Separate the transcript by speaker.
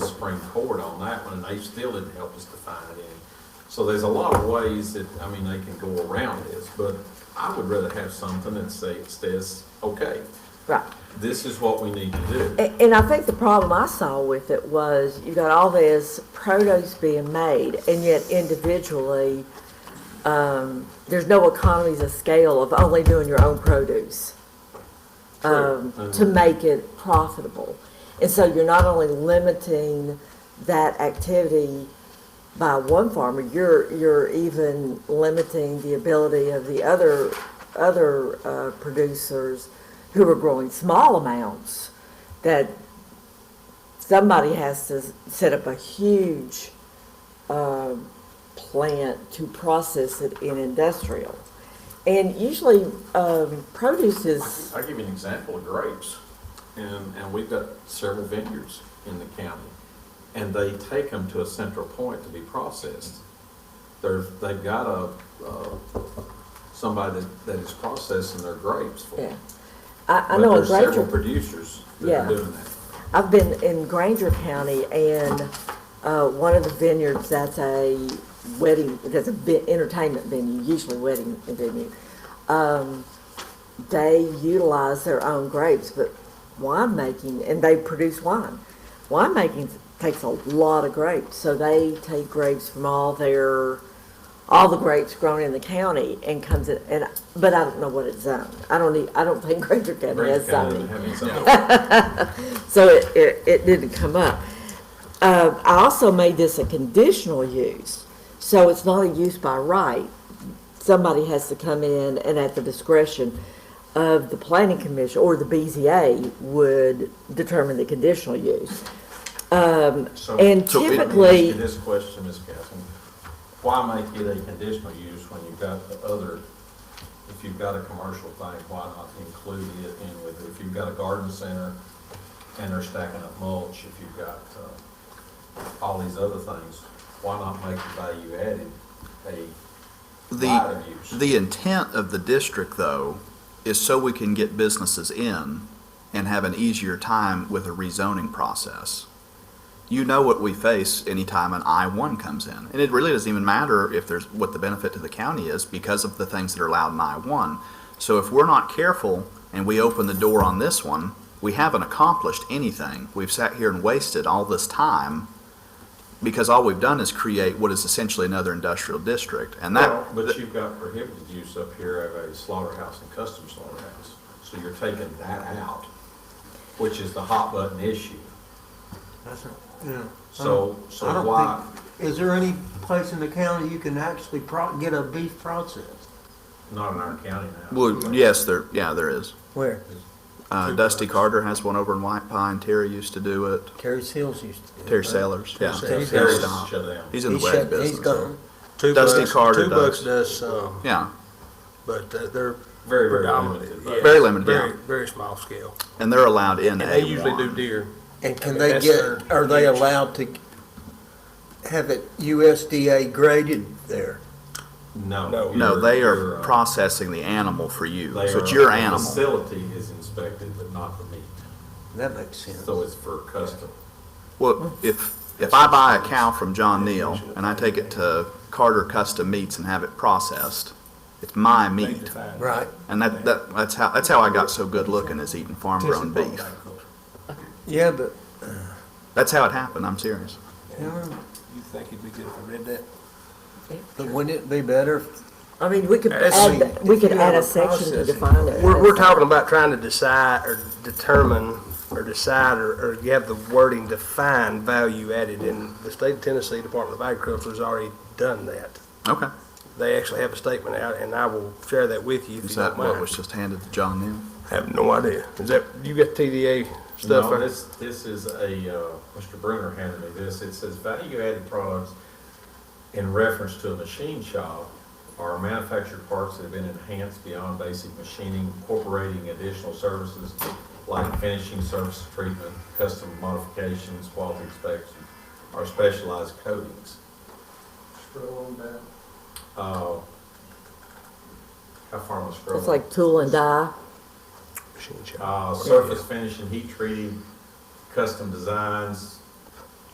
Speaker 1: Supreme Court on that one, and they still didn't help us define it any. So there's a lot of ways that, I mean, they can go around this, but I would rather have something that say, says, okay,
Speaker 2: Right.
Speaker 1: this is what we need to do.
Speaker 2: A- And I think the problem I saw with it was you got all this produce being made, and yet individually, um, there's no economies of scale of only doing your own produce um,
Speaker 1: True. Mm-hmm.
Speaker 2: to make it profitable. And so you're not only limiting that activity by one farmer, you're, you're even limiting the ability of the other, other uh, producers who are growing small amounts, that somebody has to set up a huge um, plant to process it in industrial. And usually um, produce is
Speaker 1: I'll give you an example of grapes, and, and we've got several vineyards in the county, and they take them to a central point to be processed. They're, they've got a, uh, somebody that, that is processing their grapes for
Speaker 2: Yeah.
Speaker 1: them.
Speaker 2: I, I
Speaker 1: But
Speaker 2: know in
Speaker 1: there's several
Speaker 2: Granger,
Speaker 1: producers that are
Speaker 2: Yeah.
Speaker 1: doing that.
Speaker 2: I've been in Granger County and, uh, one of the vineyards that's a wedding, that's a vi- entertainment venue, usually wedding venue. Um, they utilize their own grapes, but winemaking, and they produce wine. Winemaking takes a lot of grapes, so they take grapes from all their, all the grapes grown in the county and comes in, and, but I don't know what it's zoned. I don't need, I don't think Granger County
Speaker 1: Granger
Speaker 2: has
Speaker 1: County
Speaker 2: zoning.
Speaker 1: doesn't have any zoning.
Speaker 2: So it, it, it didn't come up. Uh, I also made this a conditional use, so it's not a use by right. Somebody has to come in and at the discretion of the planning commission or the BZA would determine the conditional use.
Speaker 1: So-
Speaker 2: and
Speaker 1: so let me ask you
Speaker 2: typically-
Speaker 1: This question, Ms. Catherine, why make it a conditional use when you've got the other, if you've got a commercial thing, why not include it in with, it? if you've got a garden center and they're stacking up mulch, if you've got, uh, all these other things, why not make the value added a right
Speaker 3: The,
Speaker 1: of use?
Speaker 3: the intent of the district, though, is so we can get businesses in and have an easier time with a rezoning process. You know what we face anytime an I-1 comes in, and it really doesn't even matter if there's, what the benefit to the county is because of the things that are allowed in I-1. So if we're not careful and we open the door on this one, we haven't accomplished anything. We've sat here and wasted all this time because all we've done is create what is essentially another industrial district, and that.
Speaker 1: Well, But you've got prohibited use up here of a slaughterhouse and custom slaughterhouse, so you're taking that out, which is the hot button issue.
Speaker 4: That's right, yeah.
Speaker 1: So,
Speaker 4: I don't
Speaker 1: so why,
Speaker 4: think- Is there any place in the county you can actually pro, get a beef processed?
Speaker 1: not in our county now.
Speaker 3: Well, yes, there, yeah, there is.
Speaker 4: Where?
Speaker 3: Uh, Dusty Carter has one over in White Pine. Terry used to do it.
Speaker 4: Terry Seals used to. do it,
Speaker 3: Terry
Speaker 4: right?
Speaker 3: Sellers, yeah.
Speaker 4: Terry
Speaker 1: Terry
Speaker 4: Sellers.
Speaker 1: Sellers
Speaker 3: Stop.
Speaker 1: shut down.
Speaker 3: He's in the
Speaker 4: He's
Speaker 3: wedding
Speaker 4: shut, he's
Speaker 3: business.
Speaker 4: gone.
Speaker 5: Two
Speaker 3: Dusty
Speaker 5: bucks-
Speaker 3: Carter
Speaker 5: Two bucks
Speaker 3: does.
Speaker 5: does, um,
Speaker 3: Yeah,
Speaker 5: but uh, they're.
Speaker 1: Very, very
Speaker 5: predominant,
Speaker 1: limited.
Speaker 5: yeah.
Speaker 3: Very limited,
Speaker 5: Very-
Speaker 3: yeah.
Speaker 5: Very small scale.
Speaker 3: and they're allowed in
Speaker 5: And
Speaker 3: A
Speaker 5: they usually do
Speaker 3: one.
Speaker 5: deer.
Speaker 4: And
Speaker 5: I
Speaker 4: can
Speaker 5: mean,
Speaker 4: they
Speaker 5: that's
Speaker 4: get,
Speaker 5: their
Speaker 4: are they
Speaker 5: niche.
Speaker 4: allowed to have it USDA graded there?
Speaker 1: No.
Speaker 5: No.
Speaker 3: No,
Speaker 1: you're-
Speaker 3: they
Speaker 1: you're,
Speaker 3: are
Speaker 1: uh,
Speaker 3: processing the animal for you.
Speaker 1: they
Speaker 3: So it's
Speaker 1: are-
Speaker 3: your
Speaker 1: the
Speaker 3: animal.
Speaker 1: Facility is inspected, but not the meat,
Speaker 4: That makes sense.
Speaker 1: so it's for custom.
Speaker 3: Well, if, if I buy a cow from John Neal and I take it to Carter Custom Meats and have it processed, it's my meat.
Speaker 4: Right,
Speaker 3: And that, that, that's how, that's how I got so good looking is eating farm-grown beef.
Speaker 4: yeah, but,
Speaker 3: That's how it happened, I'm serious.
Speaker 4: yeah,
Speaker 5: You think it'd be good if I read that?
Speaker 4: but wouldn't it be better if
Speaker 2: I mean, we could
Speaker 5: That's-
Speaker 2: add, we could
Speaker 4: If you
Speaker 2: add
Speaker 4: have
Speaker 2: a section
Speaker 4: a
Speaker 2: to
Speaker 4: processing
Speaker 2: define it.
Speaker 5: We're, we're talking about trying to decide or determine or decide or, or you have the wording define value added. And the state of Tennessee Department of Agriculture has already done that.
Speaker 3: Okay.
Speaker 5: They actually have a statement out and I will share that with you if
Speaker 3: Is
Speaker 5: you
Speaker 3: that
Speaker 5: don't
Speaker 3: what was
Speaker 5: mind.
Speaker 3: just handed to John Neal?
Speaker 5: I have no idea. Is that, you got TDA stuff?
Speaker 1: No,
Speaker 5: on it?
Speaker 1: this, this is a, uh, Mr. Brenner handed me this, it says value-added products in reference to a machine shop are manufactured parts that have been enhanced beyond basic machining, incorporating additional services like finishing, surface treatment, custom modifications, quality inspections, or specialized coatings. Uh, how far am I scrolling?
Speaker 2: It's like tool and die.
Speaker 5: Machine shop.
Speaker 1: Uh, surface finish and heat treating, custom designs,